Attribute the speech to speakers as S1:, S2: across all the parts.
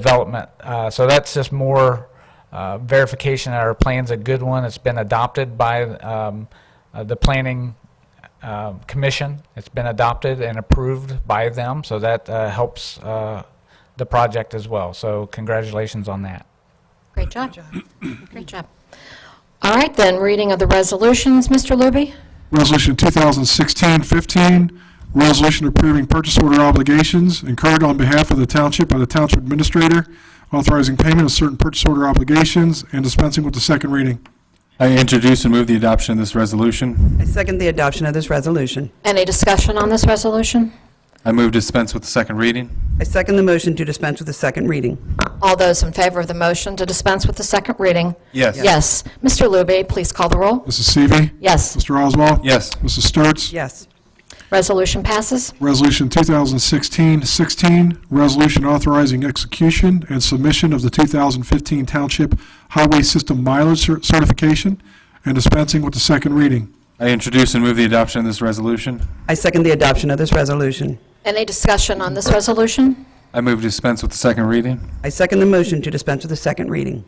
S1: development. Uh, So that's just more uh, verification that our plan's a good one. It's been adopted by um, uh, the Planning uh, Commission. It's been adopted and approved by them, so that uh, helps uh, the project as well. So congratulations on that.
S2: Great job. Great job. All right, then, reading of the resolutions, Mr. Luby?
S3: Resolution 2016-15, resolution approving purchase order obligations incurred on behalf of the township by the township administrator, authorizing payment of certain purchase order obligations, and dispensing with the second reading.
S4: I introduce and move the adoption of this resolution.
S5: I second the adoption of this resolution.
S2: Any discussion on this resolution?
S4: I move dispense with the second reading.
S5: I second the motion to dispense with the second reading.
S2: All those in favor of the motion to dispense with the second reading?
S4: Yes.
S2: Yes. Mr. Luby, please call the roll.
S3: Mrs. Seavey.
S2: Yes.
S3: Mr. Oswald.
S4: Yes.
S3: Mrs. Sturts.
S5: Yes.
S2: Resolution passes.
S3: Resolution 2016-16, resolution authorizing execution and submission of the 2015 Township Highway System Mileage Cer- Certification, and dispensing with the second reading.
S4: I introduce and move the adoption of this resolution.
S5: I second the adoption of this resolution.
S2: Any discussion on this resolution?
S4: I move dispense with the second reading.
S5: I second the motion to dispense with the second reading.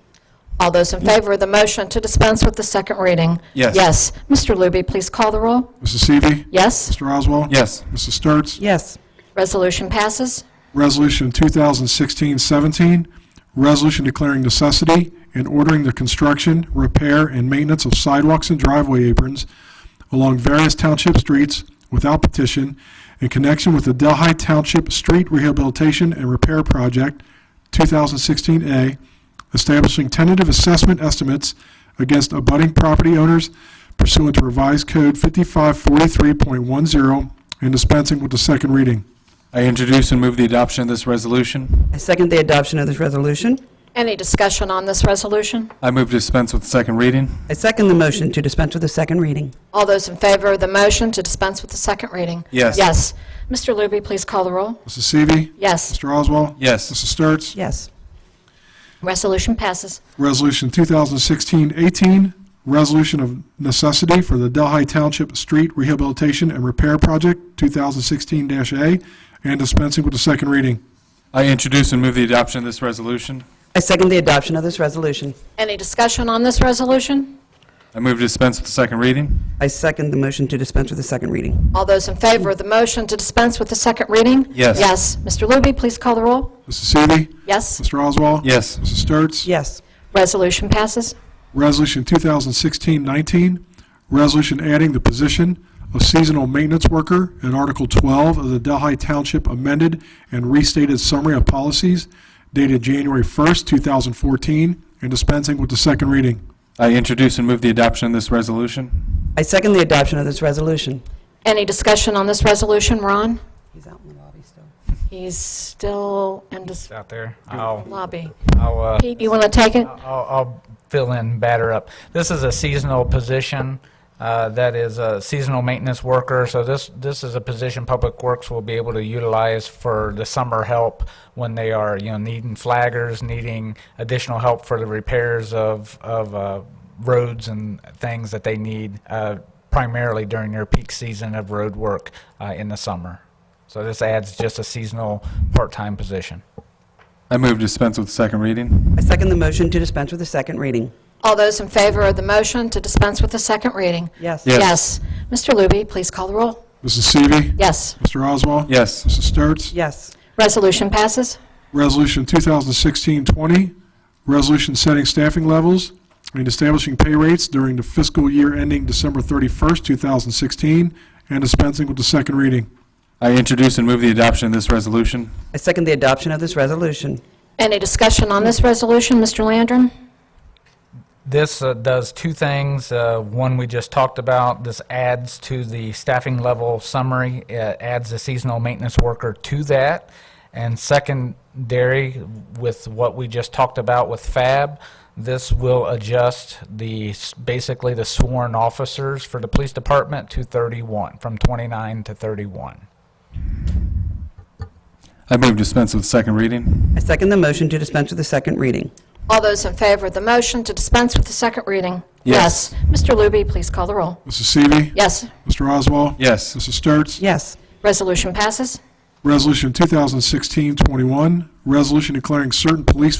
S2: All those in favor of the motion to dispense with the second reading?
S4: Yes.
S2: Yes. Mr. Luby, please call the roll.
S3: Mrs. Seavey.
S2: Yes.
S3: Mr. Oswald.
S4: Yes.
S3: Mrs. Sturts.
S5: Yes.
S2: Resolution passes.
S3: Resolution 2016-17, resolution declaring necessity and ordering the construction, repair, and maintenance of sidewalks and driveway aprons along various township streets without petition in connection with the Delhi Township Street Rehabilitation and Repair Project, 2016A, establishing tentative assessment estimates against abutting property owners pursuant to revised code 5543.10 and dispensing with the second reading.
S4: I introduce and move the adoption of this resolution.
S5: I second the adoption of this resolution.
S2: Any discussion on this resolution?
S4: I move dispense with the second reading.
S5: I second the motion to dispense with the second reading.
S2: All those in favor of the motion to dispense with the second reading?
S4: Yes.
S2: Yes. Mr. Luby, please call the roll.
S3: Mrs. Seavey.
S2: Yes.
S3: Mr. Oswald?
S4: Yes.
S3: Mrs. Sturts?
S5: Yes.
S2: Resolution passes.
S3: Resolution 2016-18, resolution of necessity for the Delhi Township Street Rehabilitation and Repair Project, 2016-A, and dispensing with the second reading.
S4: I introduce and move the adoption of this resolution.
S5: I second the adoption of this resolution.
S2: Any discussion on this resolution?
S4: I move dispense with the second reading.
S5: I second the motion to dispense with the second reading.
S2: All those in favor of the motion to dispense with the second reading?
S4: Yes.
S2: Yes. Mr. Luby, please call the roll.
S3: Mrs. Seavey.
S2: Yes.
S3: Mr. Oswald?
S4: Yes.
S3: Mrs. Sturts?
S5: Yes.
S2: Resolution passes.
S3: Resolution 2016-19, resolution adding the position of seasonal maintenance worker in Article 12 of the Delhi Township amended and restated summary of policies dated January 1st, 2014, and dispensing with the second reading.
S4: I introduce and move the adoption of this resolution.
S5: I second the adoption of this resolution.
S2: Any discussion on this resolution, Ron?
S5: He's out in the lobby still.
S2: He's still in this
S1: Out there. I'll,
S2: lobby.
S1: I'll, uh,
S2: Pete, you want to take it?
S1: I'll, I'll fill in batter up. This is a seasonal position uh, that is a seasonal maintenance worker. So this this is a position Public Works will be able to utilize for the summer help when they are you know needing flaggers, needing additional help for the repairs of of uh, roads and things that they need uh, primarily during their peak season of road work uh, in the summer. So this adds just a seasonal part-time position.
S4: I move dispense with the second reading.
S5: I second the motion to dispense with the second reading.
S2: All those in favor of the motion to dispense with the second reading?
S5: Yes.
S4: Yes.
S2: Yes. Mr. Luby, please call the roll.
S3: Mrs. Seavey.
S2: Yes.
S3: Mr. Oswald.
S4: Yes.
S3: Mrs. Sturts.
S5: Yes.
S2: Resolution passes.
S3: Resolution 2016-20, resolution setting staffing levels and establishing pay rates during the fiscal year ending December 31st, 2016, and dispensing with the second reading.
S4: I introduce and move the adoption of this resolution.
S5: I second the adoption of this resolution.
S2: Any discussion on this resolution, Mr. Landron?
S1: This uh, does two things. Uh, One we just talked about, this adds to the staffing level summary, It adds a seasonal maintenance worker to that. And secondary, with what we just talked about with FAB, this will adjust the, s- basically the sworn officers for the police department to 31, from 29 to 31.
S4: I move dispense with the second reading.
S5: I second the motion to dispense with the second reading.
S2: All those in favor of the motion to dispense with the second reading?
S4: Yes.
S2: Mr. Luby, please call the roll.
S3: Mrs. Seavey.
S2: Yes.
S3: Mr. Oswald.
S4: Yes.
S3: Mrs. Sturts.
S5: Yes.
S2: Resolution passes.
S3: Resolution 2016-21, resolution declaring certain police